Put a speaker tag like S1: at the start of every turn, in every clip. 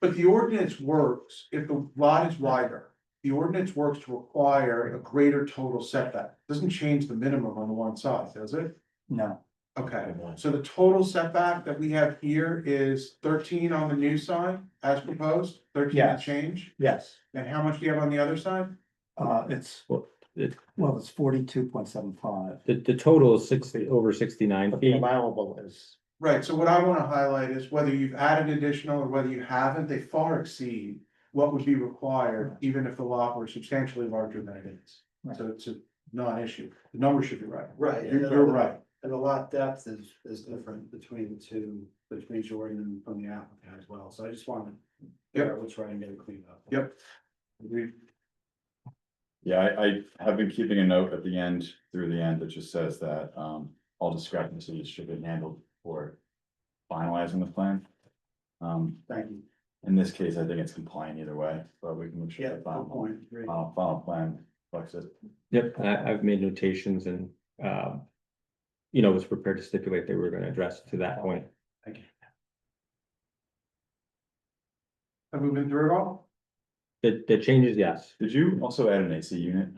S1: But the ordinance works, if the lot is wider, the ordinance works to require a greater total setback, doesn't change the minimum on the one side, does it?
S2: No,
S1: Okay, so the total setback that we have here is thirteen on the new side as proposed, thirteen and
S2: Yes.
S1: change?
S2: yes,
S1: And how much do you have on the other side?
S2: uh, it's,
S3: Well, it-
S2: well, it's forty-two point seven five.
S3: The, the total is sixty, over sixty-nine feet.
S2: Allowable is.
S1: Right, so what I wanna highlight is whether you've added additional or whether you haven't, they far exceed what would be required, even if the lot were substantially larger than it is.
S2: Right.
S1: So it's a non-issue, the number should be right,
S4: Right.
S1: you're, you're right,
S4: And the lot depth is, is different between the two, between Jordan and from the applicant as well, so I just wanted.
S1: Yep.
S4: We'll try and get it cleaned up.
S1: Yep. We-
S5: Yeah, I, I have been keeping a note at the end, through the end, that just says that, um, all discrepancies should be handled for finalizing the plan. Um,
S4: Thank you.
S5: in this case, I think it's compliant either way, but we can make sure
S4: Yeah,
S5: the
S4: good
S5: final,
S4: point. Great.
S5: final, final plan reflects it.
S3: Yep, and I, I've made notations and, um. You know, was prepared to stipulate they were gonna address to that point.
S1: have we been through it all?
S3: The, the changes, yes,
S5: Did you also add an AC unit?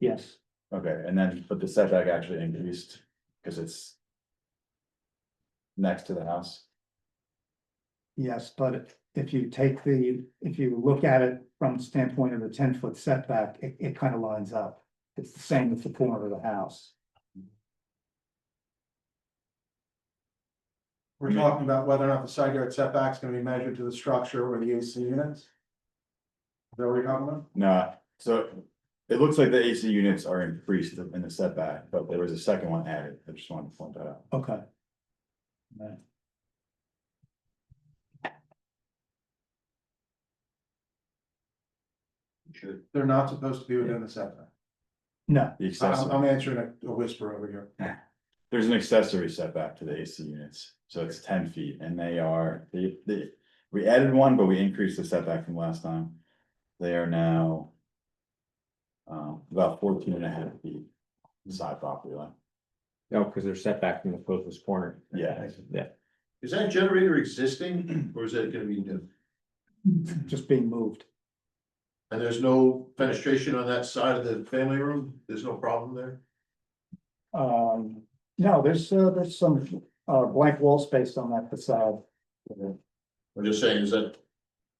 S2: Yes,
S5: Okay, and then, but the setback actually increased, cause it's next to the house.
S2: yes, but if you take the, if you look at it from the standpoint of the ten-foot setback, it, it kind of lines up. It's the same as the corner of the house.
S1: We're
S5: Yeah.
S1: talking about whether or not the side yard setback's gonna be measured to the structure or the AC units? Is that what you're talking about?
S5: Nah, so it looks like the AC units are increased in the setback, but there was a second one added, I just wanted to point that out.
S2: Okay.
S1: They're not supposed to be within the setback,
S2: No,
S5: The
S1: I'm,
S5: accessory,
S1: I'm answering a- a whisper over here.
S5: there's an accessory setback to the AC units, so it's ten feet and they are, they, they. We added one, but we increased the setback from last time. They are now. Um, about 14 and a half feet side property line.
S3: no, because they're set back from the closest corner.
S5: Yeah.
S3: Yeah,
S6: Is that generator existing or is that gonna be new?
S2: just being moved.
S6: And there's no fenestration on that side of the family room? There's no problem there?
S2: Um, no, there's, uh, there's some, uh, blank wall space on that facade.
S6: I'm just saying is that,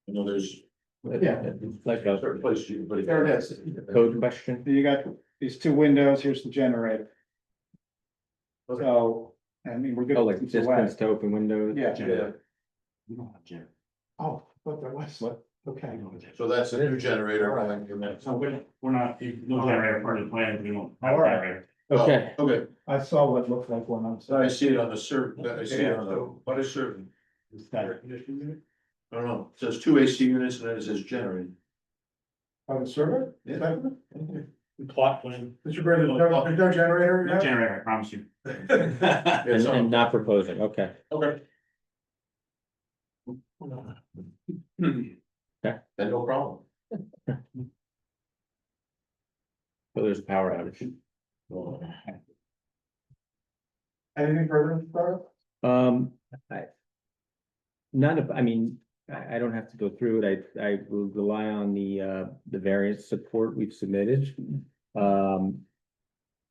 S6: you know, there's
S2: Yeah.
S3: Like
S6: a
S3: a
S6: certain place you, but.
S1: There it is.
S3: code question.
S2: You got these two windows, here's the generator.
S6: Okay.
S2: So, I mean, we're good.
S3: Oh, like distance to open windows?
S6: Yeah,
S4: Oh, but there was.
S3: What?
S4: Okay.
S6: so that's a new generator. I think, and that's-
S7: So we're, we're not, no generator part of the plan, we don't have a
S2: Alright.
S7: generator.
S3: Okay,
S6: Oh, Okay,
S2: I saw what looked like one, I'm
S6: so I
S2: sorry.
S6: see it on the serv, I see it on the, what is serving?
S2: That-
S6: I don't know, It says two AC units and then it says generator.
S1: On Oh, the server? Is that-
S7: Plot plan.
S1: Mr. Brandon, there's no- there's no generator?
S7: No
S1: yet?
S7: generator, I promise you.
S3: and,
S6: It's
S3: and
S6: on-
S3: not proposing, okay.
S6: Okay.
S3: Okay.
S6: Then no problem.
S3: So there's a power outage.
S1: Anything further, Sarah?
S3: Um, I. None of, I mean, I, I don't have to go through it. I, I will rely on the, uh, the variance support we've submitted. Um.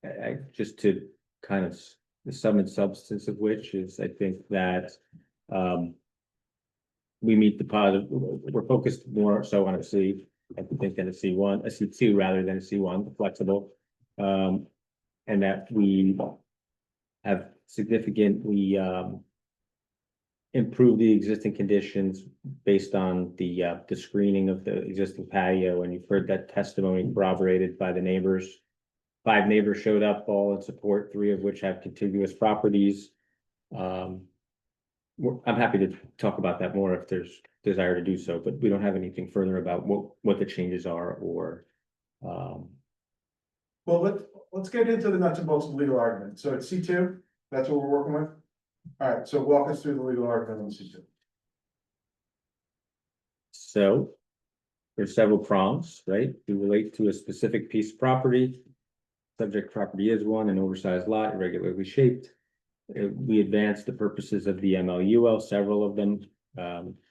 S3: I, I, just to kind of, s- the sum and substance of which is, I think that, um. We meet the positive, we're focused more so on a C, I think than a C one, a C two rather than a C one, flexible. Um, and that we have significantly um. Improved the existing conditions based on the uh the screening of the existing patio, and you've heard that testimony corroborated by the neighbors. Five neighbors showed up, all in support, three of which have contiguous properties. Um. we're- I'm happy to talk about that more if there's desire to do so, but we don't have anything further about what what the changes are or. Um,
S1: Well, let's, let's get into the nuts and bolts of legal argument, so it's C two, that's what we're working with? Alright, so walk us through the legal argument on C two.
S3: So. There's several prongs, right? They relate to a specific piece of property. Subject property is one, an oversized lot, irregularly shaped. Uh, we advance the purposes of the MLUL, several of them. Um,